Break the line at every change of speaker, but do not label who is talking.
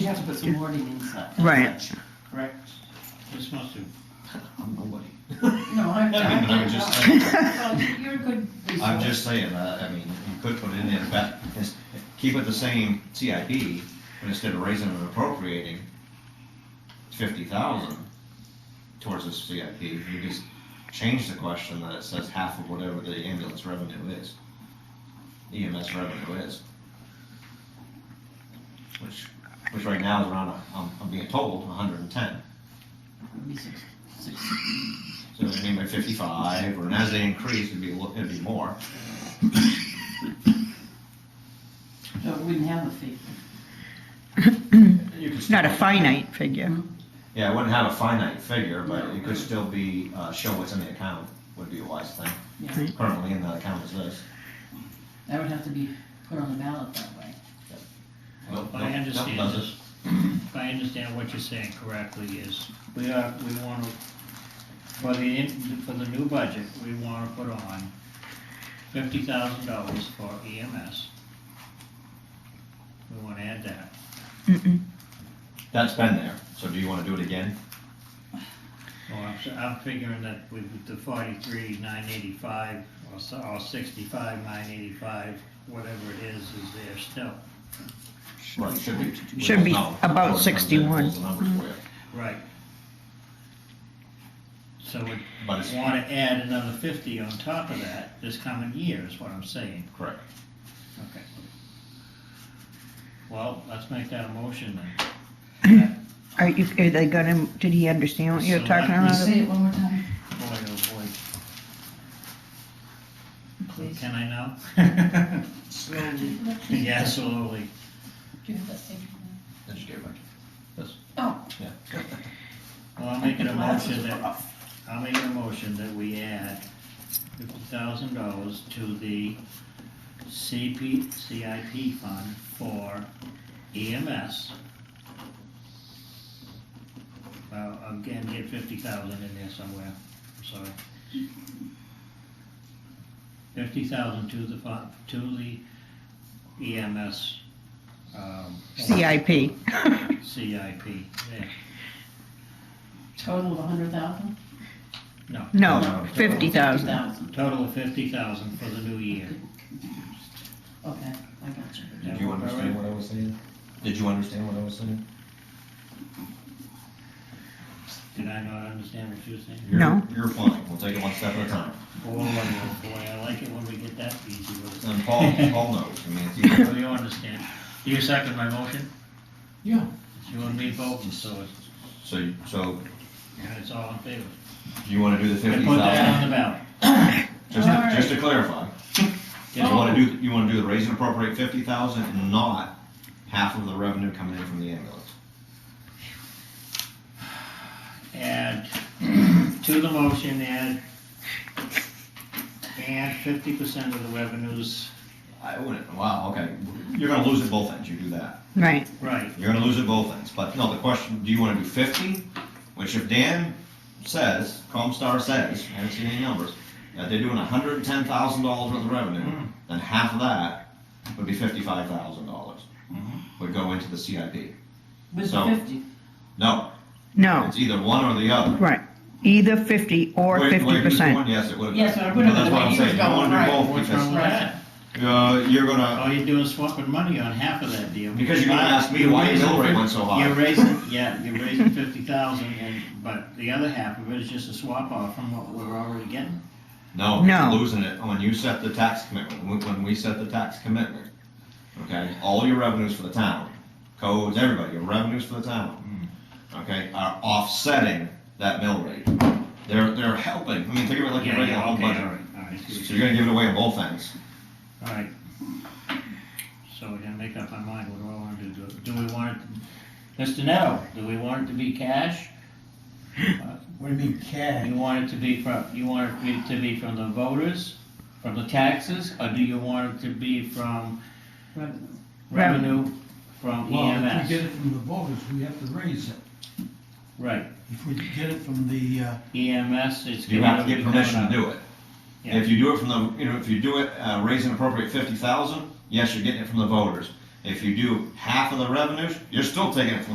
have to put some wording inside.
Right.
Correct?
It's not too.
I'm not wording.
No, I'm,
I mean, I'm
I'm,
just
not-
saying,
well, you're a good resource.
I'm just saying, uh, I, I mean, you could put it in there, but it's- keep it the same CIP, but instead of raising and appropriating fifty thousand towards this CIP, you just change the question that it says half of whatever the ambulance revenue is. EMS revenue is. Which, which right now is around, a- I'm, I'm being told, hundred and ten.
Maybe six, six.
So it'd be by fifty-five, or and as they increase, it'd be, a little- it'd be more.
No, it wouldn't have a fee.
You could
Not a
still-
finite figure.
Yeah, it wouldn't have a finite figure, but it could still be, uh, show what's in the account would be a wise thing.
Yeah,
Currently in the account is this.
that would have to be put on the ballot that way.
Nope,
I
nope, nope,
understand
does
this.
it.
If I understand what you're saying correctly is, we are, we wanna, for the, in- for the new budget, we wanna put on fifty thousand dollars for EMS. We wanna add that.
Mm-mm.
That's been there, so do you wanna do it again?
Well, I'm, s- I'm figuring that with the forty-three, nine eighty-five, or so, or sixty-five, nine eighty-five, whatever it is, is there still.
Right, should be. we
Should
don't
be
know.
about Mm-hmm.
Or it comes in,
61.
pulls the numbers for you.
Right. So we
But it's
wanna add another fifty on top of that this coming year, is what I'm saying.
correct.
Okay. Well, let's make that a motion then.
Are you, are they gonna, did he understand what you're talking
Uh,
Can you
about?
say it one more time,
Boy, oh boy.
please?
Can I now?
Slowly.
Yeah, slowly.
Do you have that same?
Then just give it back. This.
Oh.
Yeah.
Well, I'll make it a motion
Glasses are
that,
off.
I'll make a motion that we add fifty thousand dollars to the CP, CIP fund for E EMS. Well, again, get fifty thousand in there somewhere, I'm sorry. Fifty thousand to the fund, to the EMS, um.
CIP.
CIP, yeah,
Total of a hundred thousand?
no.
No, fifty thousand.
Total of fifty thousand for the new year.
Okay, I got you.
Did you understand what I was saying? Did you understand what I was saying?
Did I not understand what you were saying?
You're-
No.
You're fine, we'll take it one step at a time.
Boy, oh boy, I like it when we get that easy with
And Paul, Paul knows, I mean, it's
it.
either
So you understand. Do you second my motion?
Yeah.
You and me both, and so it's,
So, you- so
and it's all in favor.
you want to do
And
the fifty
put that on
thousand?
the ballot.
Just, to-
Alright.
just to clarify, you
Yeah.
want to do, you want to do the raise and appropriate fifty thousand and not half of the revenue coming in from the ambulance?
Add, to the motion, add, add fifty percent of the revenues.
I wouldn't, wow, okay, you're gonna lose at both ends, you do that.
Right,
Right,
You're gonna lose at both ends, but no, the question, do you want to do fifty? Which if Dan says, Comstar says, I haven't seen any numbers, that they're doing hundred and ten thousand dollars worth of revenue, then half of that would be fifty-five thousand dollars. Would go into the CIP.
With
So-
fifty,
No,
no,
it's either one or the other.
right. Either fifty or
Wait, wait,
fifty
who's
percent.
going? Yes, it would have.
Yes, it would've
That's
been
what
the
I'm
way you
saying, you
was going,
want to do
right.
both
what's wrong
because,
with that?
uh, you're gonna,
All you're doing is swapping money on half of that deal.
Because you're gonna ask me why your
You're
mill rate
raising-
went so high.
You're raising, yeah, you're raising fifty thousand, and, but the other half of it is just a swap off from what we're already getting.
no,
No.
you're losing it. When you set the tax commitment, when- when we set the tax commitment, okay, all your revenues for the town, codes, everybody, your revenues for the town,
Hmm.
okay, are offsetting that mill rate. They're, they're helping. I mean, think of it like
Yeah,
you're
yeah,
regular whole
okay, all
budget.
right, all right,
So you're gonna give it away on both ends.
all right. So we're gonna make up our mind, what do I wanna do? do, do we want it, Mr. Neto, do we want it to be cash?
What do you mean cash?
You want it to be from, you want it be- to be from the voters, from the taxes, or do you want it to be from
revenue.
revenue from E
Well, if we get
EMS?
it from the voters, we have to raise it.
Right, E
If we get it from the, uh,
EMS, it's.
You have to get permission to
it.
do it.
Yeah.
If you do it from the, you know, if you do it, uh, raise an appropriate fifty thousand, yes, you're getting it from the voters. If you do half of the revenues, you're still taking it from